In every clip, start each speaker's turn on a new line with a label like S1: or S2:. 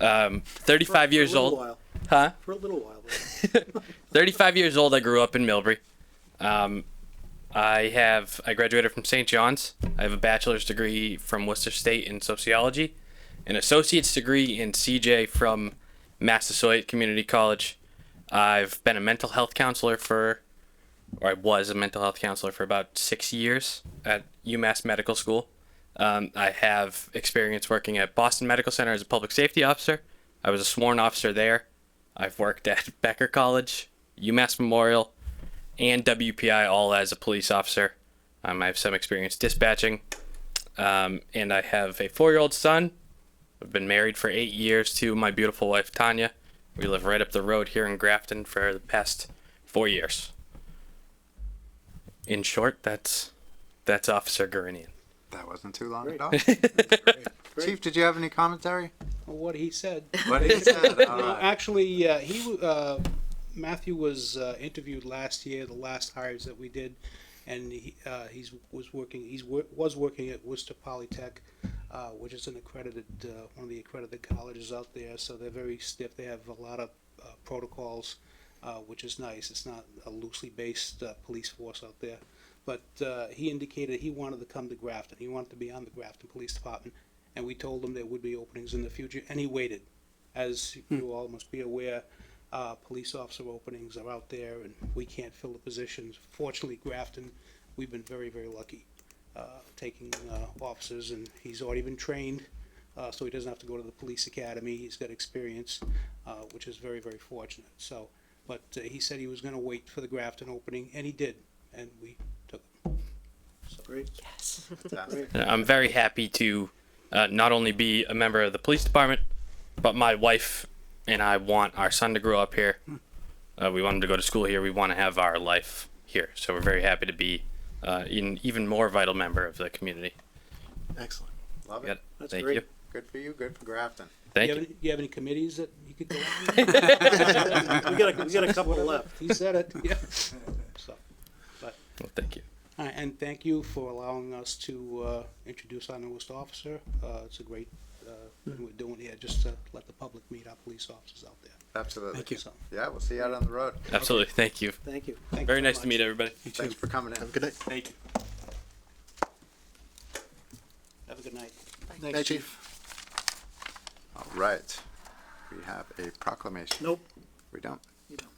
S1: Um, 35
S2: For
S1: years
S2: a little
S1: old.
S2: while.
S1: Huh?
S2: For a little while.
S1: 35 years old. I grew up in Millbury. Um, I have I graduated from St. John's. I have a bachelor's degree from Worcester State in sociology, an associate's degree in CJ from Massasoit Community College. I've been a mental health counselor for, or I was a mental health counselor for about six years at UMass Medical School. Um, I have experience working at Boston Medical Center as a public safety officer. I was a sworn officer there. I've worked at Becker College, UMass Memorial, and WPI all as a police officer. Um, I have some experience dispatching, um, and I have a four-year-old son. I've been married for eight years to my beautiful wife Tanya. We live right up the road here in Grafton for the past four years. In short, that's that's Officer Gurinian.
S3: That wasn't too long
S2: Great.
S3: at all. Chief, did you have any commentary?
S4: What he said.
S3: What he said. All
S4: No,
S3: right.
S4: actually, uh, he w- uh, Matthew was uh, interviewed last year, the last hires that we did, and he uh, he's was working he's wor- was working at Worcester Polytech, uh, which is an accredited uh, one of the accredited colleges out there. So they're very stiff. They have a lot of uh, protocols, uh, which is nice. It's not a loosely based uh, police force out there. But uh, he indicated he wanted to come to Grafton. He wanted to be on the Grafton Police Department, and we told him there would be openings in the future, and he waited as you all must be aware, uh, police officer openings are out there and we can't fill the positions. Fortunately, Grafton, we've been very, very lucky, uh, taking, uh, officers and he's already been trained, uh, so he doesn't have to go to the police academy. He's got experience, uh, which is very, very fortunate, so. But uh, he said he was gonna wait for the Grafton opening and he did, and we took him.
S2: Great.
S3: Fantastic.
S1: I'm very happy to uh, not only be a member of the police department, but my wife and I want our son to grow up here. Uh, we want him to go to school here. We want to have our life here. So we're very happy to be uh, an even more vital member of the community.
S2: Excellent.
S3: Love
S1: Yep.
S3: it.
S2: That's
S1: Thank
S2: great.
S1: you.
S3: Good for you. Good for Grafton.
S1: Thank
S4: you.
S1: you.
S4: have any- You have any committees that you could go on?
S2: We got a, we got a couple left.
S4: He said it, yeah. So.
S1: Well, thank you.
S4: All right, And thank you for allowing us to uh, introduce our newest officer. Uh, It's a great, uh,
S2: Hmm.
S4: thing we're doing here, just to let the public meet our police officers out there.
S3: Absolutely.
S2: Thank you.
S4: So,
S3: Yeah, we'll see you out on the road.
S1: Absolutely. Thank you.
S2: Thank you.
S4: thank you
S1: Very
S4: so
S1: nice to
S4: much.
S1: meet everybody.
S3: Thanks for coming in.
S2: Have a good night.
S4: Thank you. Have a good night.
S2: Thanks, Chief.
S3: All right. We have a proclamation.
S2: Nope.
S3: We don't.
S2: You don't.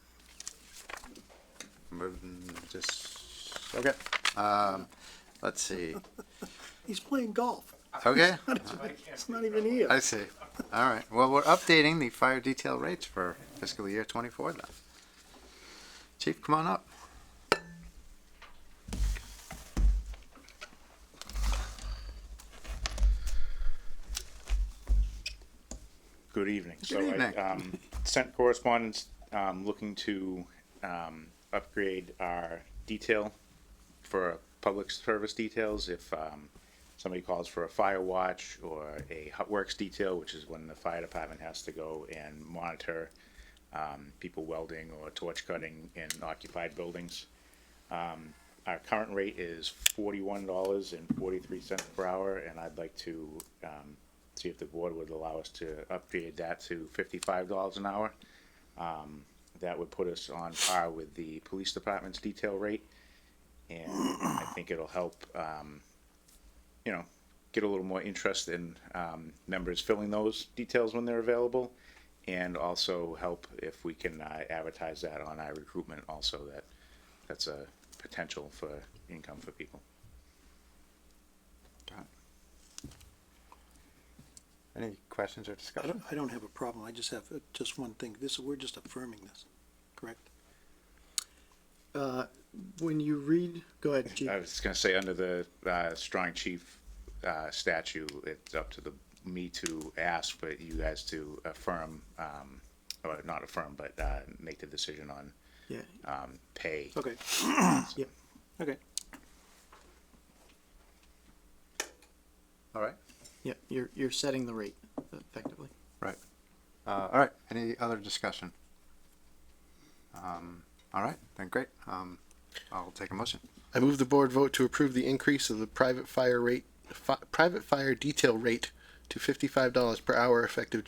S3: Moving, just, okay. Um, let's see.
S2: He's playing golf.
S3: Okay,
S2: It's not even here.
S3: I see. All right. Well, we're updating the fire detail rates for fiscal year twenty-four then. Chief, come on up.
S5: Good evening. So
S3: evening.
S5: I um, sent correspondence um, looking to um, upgrade our detail for public service details. If um, somebody calls for a fire watch or a hot works detail, which is when the fire department has to go and monitor um, people welding or torch cutting in occupied buildings. Um, Our current rate is forty-one dollars and forty-three cents per hour, and I'd like to um, see if the board would allow us to upgrade that to fifty-five dollars an hour. Um, That would put us on par with the police department's detail rate, and I think it'll help, um, you know, get a little more interest in um, members filling those details when they're available, and also help if we can uh, advertise that on our recruitment also, that that's a potential for income for people.
S3: Any questions or
S2: I
S3: discussion?
S2: don't, I don't have a problem. I just have uh, just one thing. This, we're just affirming this, correct?
S6: When you read, go ahead, Chief.
S5: I was just gonna say, under the uh, strong chief uh, statute, it's up to the, me to ask, but you guys to affirm, um, or not affirm, but uh, make the decision on
S6: Yeah,
S5: um, pay.
S2: Okay.
S6: Yep.
S2: Okay.
S3: All right,
S6: yeah, you're, you're setting the rate effectively.
S3: right. Uh, all right, any other discussion? Um, all right, then great. Um, I'll take a motion.
S7: I move the board vote to approve the increase of the private fire rate, fi- private fire detail rate to fifty-five dollars per hour effective